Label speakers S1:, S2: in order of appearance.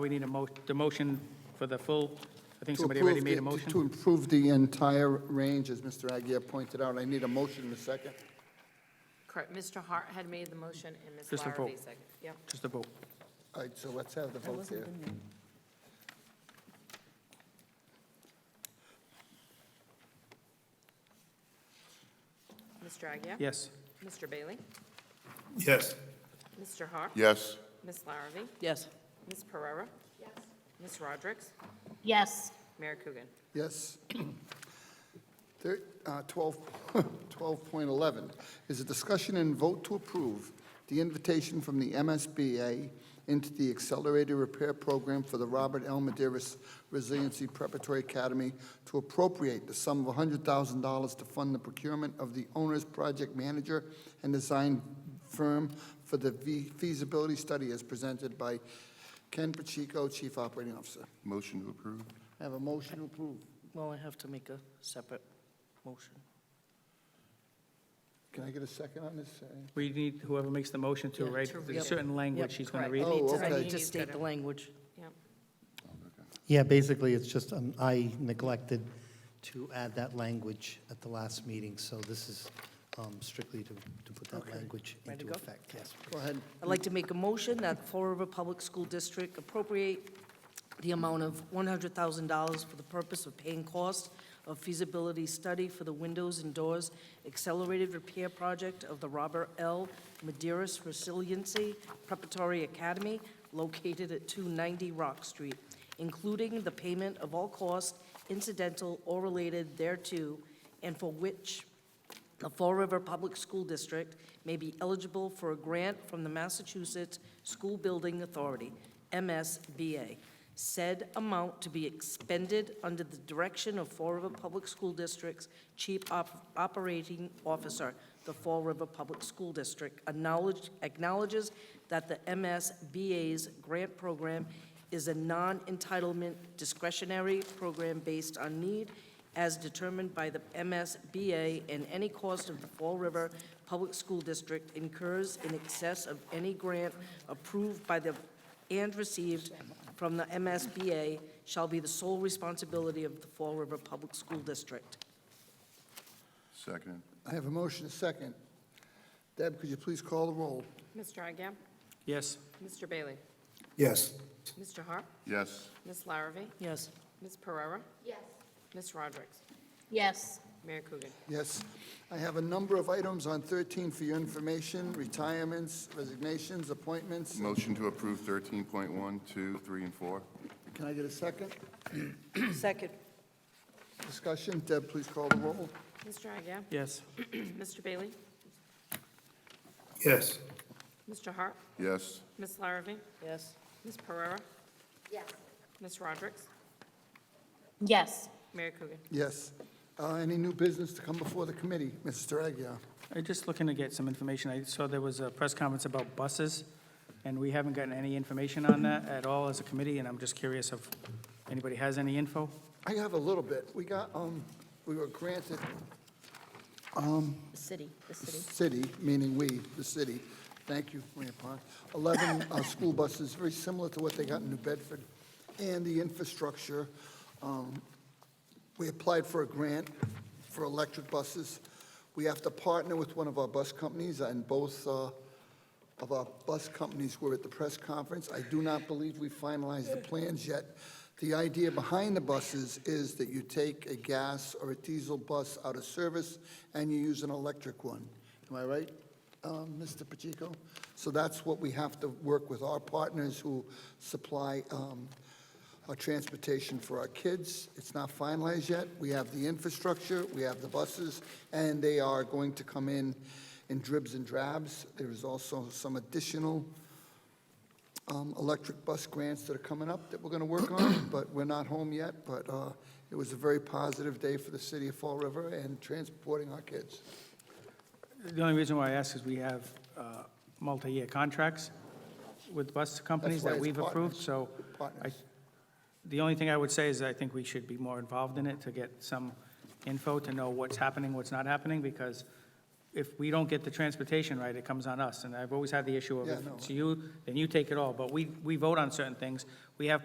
S1: We need a mo, the motion for the full, I think
S2: To
S1: somebody already
S2: approve
S1: made a
S2: the-
S1: motion.
S2: To improve the entire range, as Mr. Aguirre pointed out. I need a motion in a second.
S3: Correct, Mr. Hart had made the motion and Ms.
S1: Just a
S3: Larrabee
S1: vote.
S3: seconded. Yep.
S1: Just a vote.
S2: All right, so let's have the vote there.
S3: Mr. Agia?
S1: Yes.
S3: Mr. Bailey?
S4: Yes.
S3: Mr. Hart?
S4: Yes.
S3: Ms. Larrabee?
S5: Yes.
S3: Ms. Pereira? Yes. Ms. Rodrick?
S6: Yes,
S3: Mayor Coogan?
S2: Yes. Thir- uh, 12 12.11 is a discussion and vote to approve the invitation from the MSBA into the Accelerated Repair Program for the Robert L. Maderis Resiliency Preparatory Academy to appropriate the sum of $100,000 to fund the procurement of the owner's project manager and design firm for the fe- feasibility study as presented by Ken Pacheco, Chief Operating Officer.
S4: Motion to approve?
S2: I have a motion to approve.
S5: Well, I have to make a separate motion.
S2: Can I get a second on this?
S1: We need whoever makes the motion to,
S5: Yeah,
S1: right?
S5: to
S1: There's
S5: read.
S1: certain language he's going to read.
S5: Yep, correct.
S2: Oh,
S5: I need to- I
S2: okay.
S5: need to state the language.
S3: Yep.
S7: Yeah, basically, it's just, um, I neglected to add that language at the last meeting, so this is um, strictly to, to put that language
S5: Ready to
S7: into
S5: go?
S7: effect, yes.
S2: Go ahead.
S5: I'd like to make a motion that Fall River Public School District appropriate the amount of $100,000 for the purpose of paying costs of feasibility study for the windows and doors accelerated repair project of the Robert L. Maderis Resiliency Preparatory Academy located at 290 Rock Street, including the payment of all costs incidental or related thereto, and for which the Fall River Public School District may be eligible for a grant from the Massachusetts School Building Authority, MSBA. Said amount to be expended under the direction of Fall River Public School District's Chief Op- Operating Officer. The Fall River Public School District acknowledge- acknowledges that the MSBA's grant program is a non-entitlement discretionary program based on need as determined by the MSBA, and any cost of the Fall River Public School District incurs in excess of any grant approved by the, and received from the MSBA shall be the sole responsibility of the Fall River Public School District.
S4: Second.
S2: I have a motion, a second. Deb, could you please call the roll?
S3: Mr. Agia?
S1: Yes.
S3: Mr. Bailey?
S4: Yes.
S3: Mr. Hart?
S4: Yes.
S3: Ms. Larrabee?
S5: Yes.
S3: Ms. Pereira? Yes. Ms. Rodrick?
S6: yes,
S3: Mayor Coogan?
S2: Yes. I have a number of items on 13 for your information, retirements, resignations, appointments.
S4: Motion to approve 13.1, 2, 3, and 4?
S2: Can I get a second?
S5: Second.
S2: Discussion? Deb, please call the roll.
S3: Mr. Agia?
S1: Yes.
S3: Mr. Bailey?
S4: Yes.
S3: Mr. Hart?
S4: Yes.
S3: Ms. Larrabee?
S5: Yes.
S3: Ms. Pereira? Yes. Ms. Rodrick?
S6: yes.
S3: Mayor Coogan?
S2: Yes. Uh, Any new business to come before the committee? Mr. Aguirre?
S1: I'm just looking to get some information. I saw there was a press conference about buses, and we haven't gotten any information on that at all as a committee, and I'm just curious if anybody has any info?
S2: I have a little bit. We got, um, we were granted
S5: The city, the
S2: the city, meaning we, the city, thank you, Mayor Pond, 11 uh, school buses, very similar to what they got in New Bedford, and the infrastructure. um, We applied for a grant for electric buses. We have to partner with one of our bus companies, and both uh, of our bus companies were at the press conference. I do not believe we finalized the plans yet. The idea behind the buses is that you take a gas or a diesel bus out of service and you use an electric one. Am I right, um, Mr. Pacheco? So that's what we have to work with our partners who supply um, our transportation for our kids. It's not finalized yet. We have the infrastructure, we have the buses, and they are going to come in in dribs and drabs. There is also some additional um, electric bus grants that are coming up that we're going to work on, but we're not home yet. But uh, it was a very positive day for the city of Fall River and transporting our kids.
S1: The only reason why I ask is we have uh, multi-year contracts with bus companies
S2: why
S1: that
S2: it's
S1: we've approved,
S2: partners.
S1: so I,
S2: Partners.
S1: the only thing I would say is I think we should be more involved in it to get some info to know what's happening, what's not happening, because if we don't get the transportation right, it comes on us. And I've always had the issue of,
S2: Yeah,
S1: if
S2: no.
S1: it's you, then you take it all. But we, we vote on certain things. We have